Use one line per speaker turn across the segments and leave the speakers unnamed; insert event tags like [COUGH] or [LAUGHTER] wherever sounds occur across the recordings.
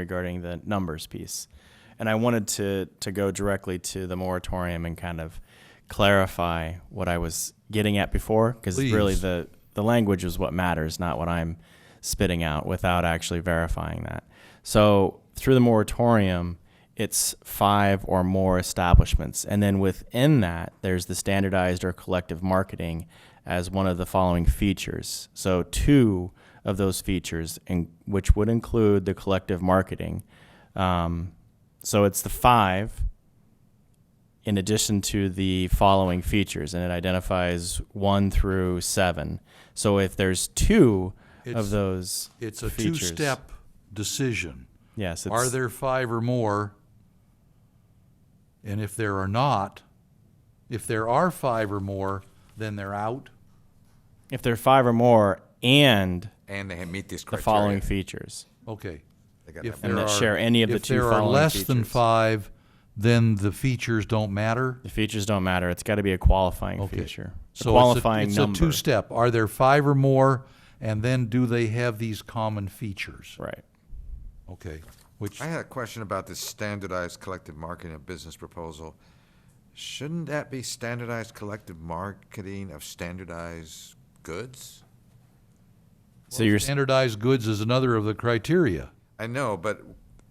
regarding the numbers piece. And I wanted to, to go directly to the moratorium and kind of clarify what I was getting at before, because really
Please.
the, the language is what matters, not what I'm spitting out without actually verifying that. So through the moratorium, it's five or more establishments. And then within that, there's the standardized or collective marketing as one of the following features. So, two of those features, in, which would include the collective marketing. Um, so, it's the five in addition to the following features, and it identifies one through seven. So, if there's two
It's-
of those,
It's a
features.
two-step decision.
Yes, it's,
Are there five or more? And if there are not, if there are five or more, then they're out.
if there are five or more and
And they meet these
the
criteria.
following features.
Okay.
They got
If
that.
And
there
that
are-
share any of the two
If there are
following
less than
features.
five, then the features don't matter.
The features don't matter. It's got to be a qualifying
Okay.
feature, a
So it's a,
qualifying
it's
number.
a two-step. Are there five or more? And then do they have these common features?
Right.
Okay. Which
I had a question about this standardized collective marketing of business proposal. Shouldn't that be standardized collective marketing of standardized goods?
so you're s-
standardized goods is another of the criteria.
I know, but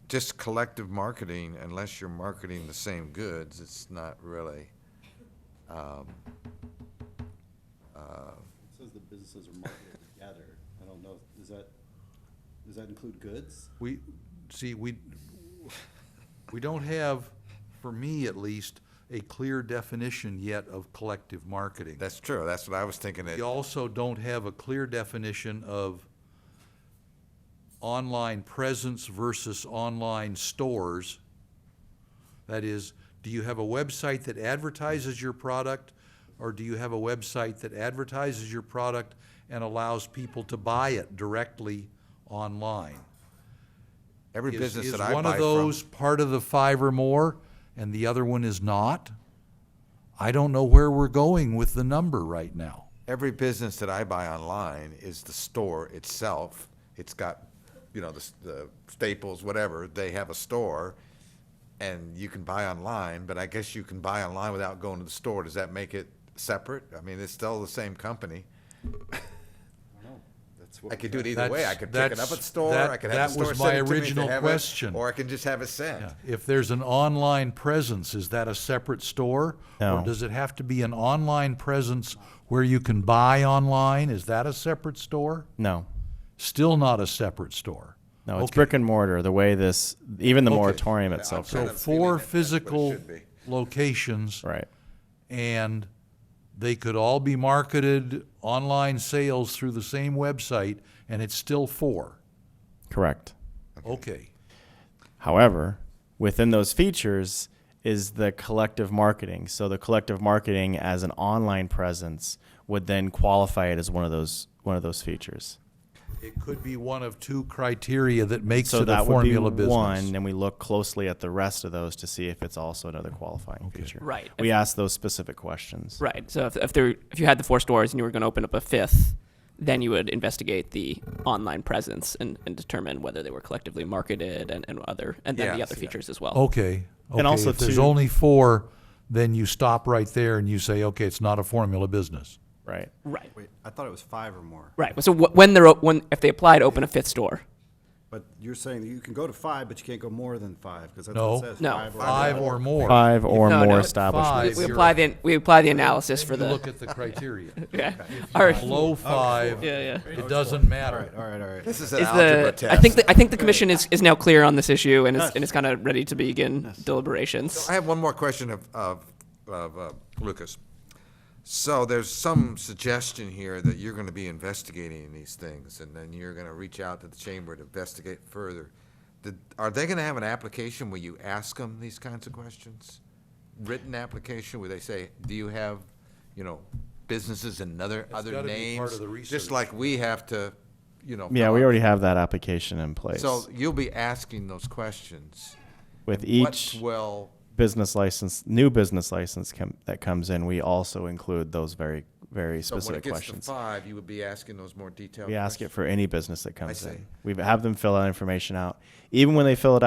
just collective marketing, unless you're marketing the same goods, it's not really.
Says the businesses are marketed together. I don't know, does that, does that include goods?
We, see, we, we don't have, for me at least, a clear definition yet of collective marketing.
That's true. That's what I was thinking. It,
We also don't have a clear definition of online presence versus online stores. That is, do you have a website that advertises your product, or do you have a website that advertises your product and allows people to buy it directly online?
every
Is-
business that
Is
I
one
buy
of those
from,
part of the five or more, and the other one is not? I don't know where we're going with the number right now.
every business that I buy online is the store itself. It's got, you know, the, s- the Staples, whatever. They have a store, and you can buy online. But I guess you can buy online without going to the store. Does that make it separate? I mean, it's still the same company.
I don't know. That's what.
I
we
could
got.
do it either way. I
That's-
could pick it up at the
that's-
store.
that-
I could have
that
the store
was
send
my
it to me, they
original
have it,
question.
or I can just have it sent.
Yeah. If there's an online presence, is that a separate store? Or
No.
does it have to be an online presence where you can buy online? Is that a separate store?
no,
Still not a separate store.
no. It's
Okay.
brick and mortar. The way this, even the
Okay.
moratorium
Yeah,
itself.
I'm
So
kind of
four
feeling that that's what it
physical
should be.
locations
right.
and they could all be marketed online sales through the same website and it's still four.
Correct.
Okay.
However, within those features is the collective marketing. So the collective marketing as an online presence would then qualify it as one of those one of those features.
It could be one of two criteria that makes
So
it a
that would be
formula business.
one, and we look closely at the rest of those to see if it's also another qualifying feature.
Right.
We ask those specific questions.
Right. So if, if there if you had the four stores and you were going to open up a fifth, then you would investigate the online presence and, and determine whether they were collectively marketed and, and other and then the
Yeah,
other
yeah.
features as well.
Okay. okay,
also
if there's
too-
only four, then you stop right there and you say, okay, it's not a formula business.
Right.
Right.
Wait, I thought it was five or more.
Right. So wh- when they're o- when if they apply to open a fifth store,
But you're saying that you can go to five, but you can't go more than five, because that's
No.
what it says.
No.
Five or more.
Five or
No, no,
more
five.
Five,
establishments.
we, we
you're-
apply the we apply the analysis for
You
the
look at the criteria.
[LAUGHS] yeah. All right.
Below five,
Yeah, yeah.
it doesn't
All
matter.
right, all right, all right.
This is an
Is
algebra
the,
test.
I think the, I think the commission is, is now clear on this issue and is, and is kind of ready to begin deliberations.
I have one more question of, of, of uh, Lucas. So there's some suggestion here that you're going to be investigating these things, and then you're going to reach out to the chamber to investigate further. Did, are they going to have an application where you ask them these kinds of questions? Written application where they say, "Do you have, you know, businesses and other other
gotta be
names?"
part of the research.
Just like we have to, you know.
Yeah,
fill
we
out.
already have that application in place.
So you'll be asking those questions.
with
What
each
will
business license, new business license com- that comes in, we also include those very very
So when it
specific
gets to
questions.
five, you would be asking those more detailed
We ask it
questions.
for any business that comes
see.
in. We have them fill that information out. Even when they fill it out.